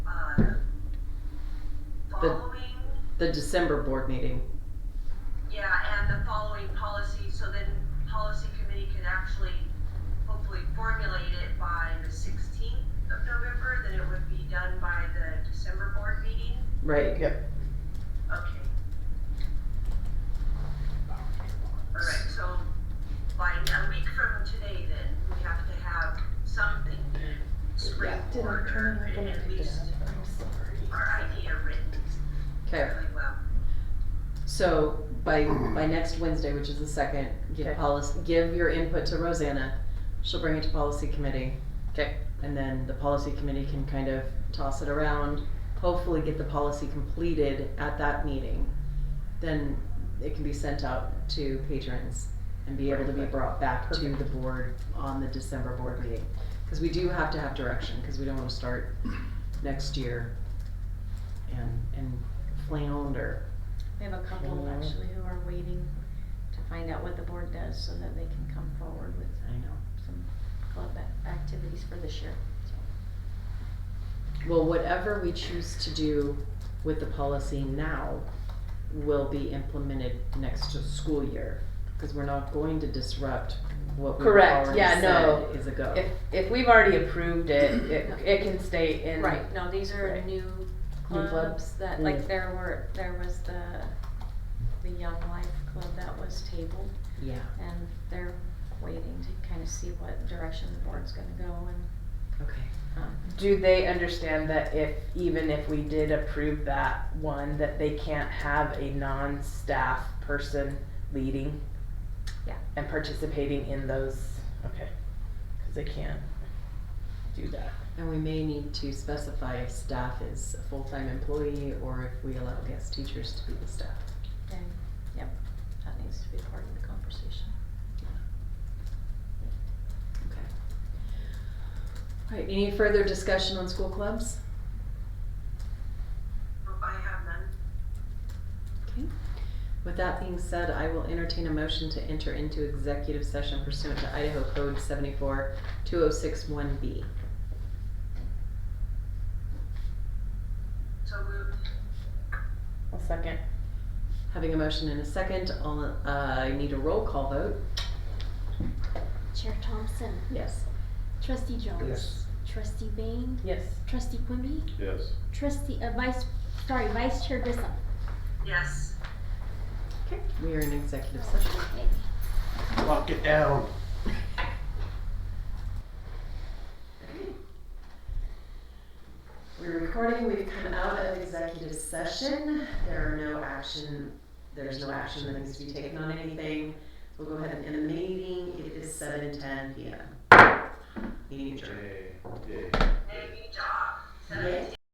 Um, the December board meeting. Yeah, and the following policy, so then policy committee can actually hopefully formulate it by the sixteenth of November, then it would be done by the December board meeting. Right. Yep. Okay. All right, so by a week from today then, we have to have something in spring Yeah. Did I turn order, it and off? at least I'm sorry. our idea written Okay. really well. So by by next Wednesday, which is the second, give Okay. policy, give your input to Rosanna. She'll bring it to policy committee. Okay. And then the policy committee can kind of toss it around. Hopefully, get the policy completed at that meeting. Then it can be sent out to patrons and be able to be Perfect. brought back to the board on the December board meeting. Because we do have to have direction, because we don't want to start next year and and flounder. We have a couple Sure. actually who are waiting to find out what the board does so that they can come forward with uh, I know. some club ac- activities for this year. Well, whatever we choose to do with the policy now will be implemented next to school year. Cause we're not going to disrupt what we've Correct. already Yeah, said no. is a go. If, if we've already approved it, it, it can stay in. Right, no, these are Right. new New clubs that, Mm. like there were, there was the, the Young Life Club that was tabled Yeah, and they're waiting to kind of see what direction the board's gonna go and, okay. um, Do they understand that if, even if we did approve that one, that they can't have a non-staff person leading? Yeah. And participating in those, okay, cause they can't do that. And we may need to specify if staff is a full-time employee or if we allow guest teachers to be the staff. and, yep, that needs to be part of the conversation. Okay. Alright, any further discussion on school clubs? Hope I have none. Okay. With that being said, I will entertain a motion to enter into executive session pursuant to Idaho Code seventy-four two oh six one B. So moved. I'll second. Having a motion in a second, all, uh, I need a roll call vote. Chair Thompson, Yes. Trustee Jones, Yes. Trustee Bain, Yes. Trustee Quimby, Yes. Trustee uh, Vice, sorry, Vice Chair Grissom. Yes. Okay. We are in executive session. Okay. Lock it down. We're recording, we've come out of executive session, there are no action, there's no action that needs to be taken on anything. We'll go ahead and end the meeting, it is seven ten P M. Meeting adjourned. Yay. Yay. Maybe dog. Yay.